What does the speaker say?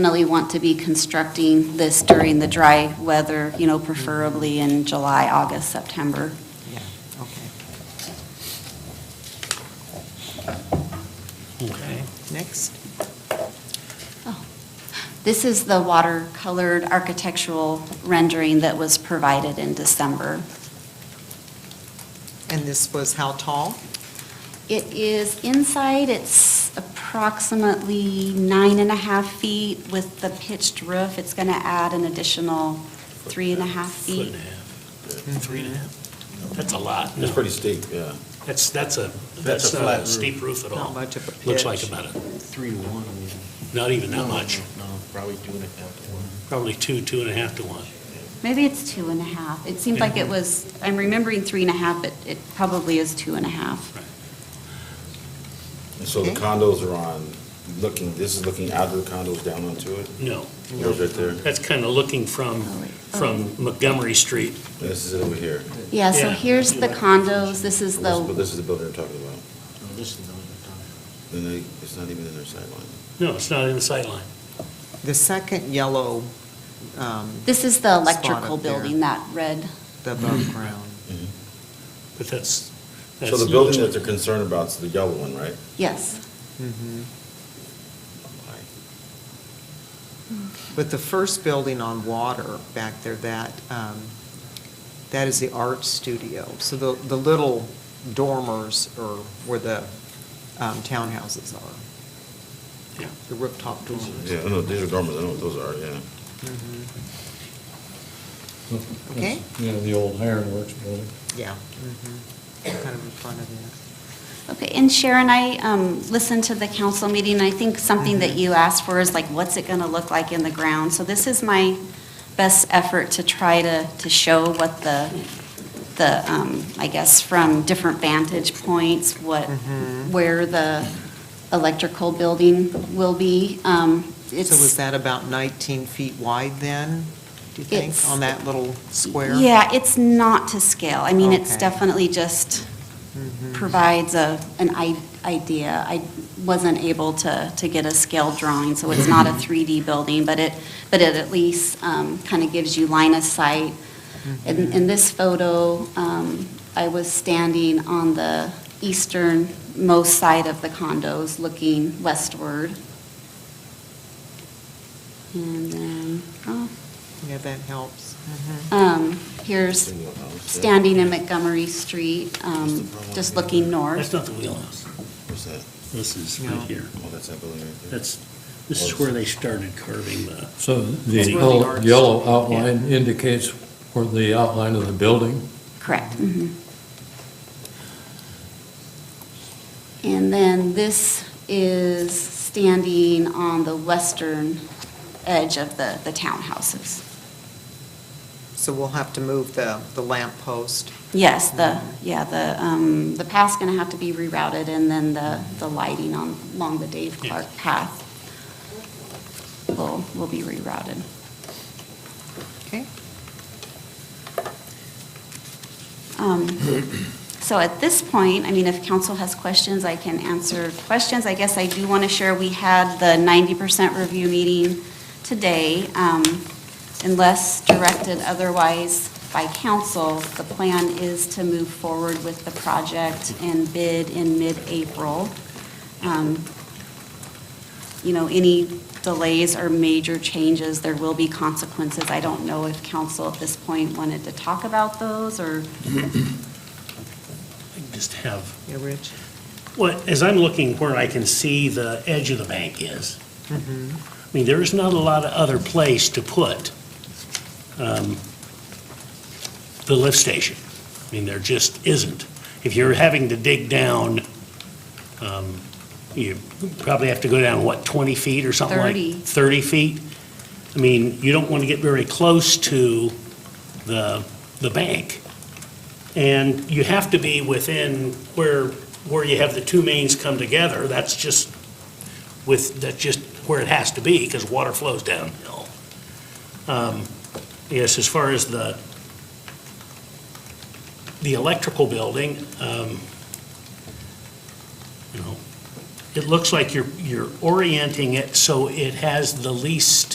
definitely want to be constructing this during the dry weather, you know, preferably in July, August, September. Okay, Okay. next. This is the watercolored architectural rendering that was provided in December. And this was how tall? It is inside, it's approximately nine and a half feet with the pitched roof. It's going to add an additional three and a half Foot and feet. a half, uh, three Mm-hmm. and a half. That's a lot. It's pretty steep, yeah. That's, that's a, a that's flat not a roof. steep roof at Not all. much of a pitch. Looks like about a, Three to one, maybe. not even No, that much, No, probably two and a half to one. probably two, two and a half to one. Maybe it's two and a half. It seemed like it was, I'm remembering three and a half, but it probably is two and a half. And so the Okay. condos are on, looking, this is looking out of the condos down onto it? No, Those right there? that's kind of looking from, Oh, from Montgomery Street. This is it over here. Yeah, so Yeah. here's the condos, this is This- But the, this is the building we're talking about. No, this is the one you're talking Then they, it's not even in their sideline. No, it's not in the sight line. The second yellow, um, this is the Spot up electrical there. building, that red. the Mm-hmm. above ground. But that's, that's. So the building that they're concerned about is the yellow one, right? Yes, Mhm. But the first building on water back there, that, um, that is the art studio. So the, the little dormers are where the um, townhouses are, Yeah. the rooftop dormers. Mm-hmm. Yeah, I know, these are dormers, I know what those are, yeah. Mhm. Okay. Yeah, the old ironworks building. Yeah. mhm. Kind of in front of that. okay, and Sharon, I um, listened to the council meeting, and I think something Mm-hmm. that you asked for is like, what's it gonna look like in the ground? So this is my best effort to try to, to show what the, the, um, I guess, from different vantage points, what, Mm-hmm. where the electrical building will be. Um, So It's was that about 19 feet wide then, do you think, It's- on that little square? Yeah, it's not to scale. I mean, it's Okay. Mm-hmm. definitely just provides a, an i- idea. I wasn't able to, to get a scale drawing, so it's not a 3D building, but it, but it at least kind of gives you line of sight. Mm-hmm. In, in this photo, um, I was standing on the easternmost side of the condos, looking westward. And then, oh, Yeah, that helps. Mhm. um, here's Single house, yeah. standing in Montgomery Street, um, just looking That's north. not the wheelhouse. What's that? This is No. right here. Oh, that's that building right there. That's, this is where they started carving the, So That's the where the yellow- arts- yellow outline indicates where the outline of the building. Correct. mhm. And then this is standing on the western edge of the, the townhouses. So we'll have to move the, the lamp post. Yes, the, yeah, the, um, the path's gonna have to be rerouted, and then the, the lighting on, along the Dave Clark path will, will be rerouted. Okay. Um, So at this point, I mean, if council has questions, I can answer questions. I guess I do want to share, we had the 90% review meeting today. Um, Unless directed otherwise by council, the plan is to move forward with the project and bid in mid-April. Um, You know, any delays or major changes, there will be consequences. I don't know if council at this point wanted to talk about those or I just have Yeah, Rich? Well, as I'm looking where I can see the edge of the bank is, I mean, there is not a lot of other place to put um, the lift station. I mean, there just isn't. If you're having to dig down, um, you probably have to go down, what, 20 feet or something like? 30. 30 feet? I mean, you don't want to get very close to the, the bank. And you have to be within where, where you have the two mains come together, that's just with, that's just where it has to be, because water flows downhill. Um, Yes, as far as the, the electrical building, um, you know, it looks like you're, you're orienting it so it has the least